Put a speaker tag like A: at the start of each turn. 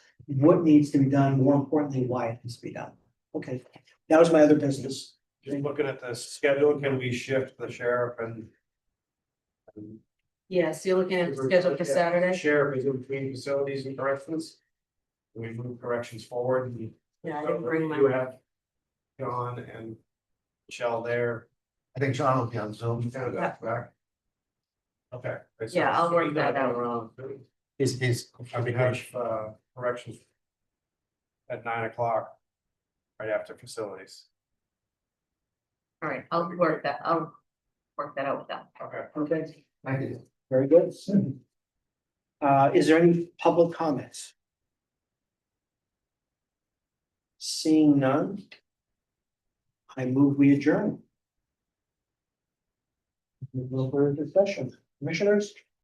A: what needs to be done, more importantly, why it needs to be done. Okay, that was my other business.
B: Just looking at the schedule, can we shift the sheriff and?
C: Yes, you're looking at the schedule for Saturday.
B: Sheriff is in between facilities and corrections. We move corrections forward. and-
C: Yeah, I didn't bring
B: You
C: my,
B: have John and Michelle there.
D: I think John will be on Zoom.
C: Yeah.
B: Okay.
C: Yeah, I'll work that out.
D: Is, is.
B: I mean, have uh corrections. At nine o'clock. Right after facilities.
C: all right, I'll work that, I'll work that out with them.
B: Okay.
A: Okay, very good. Uh, is there any public comments? Seeing none. I move we adjourn. No further discussion. Commissioners?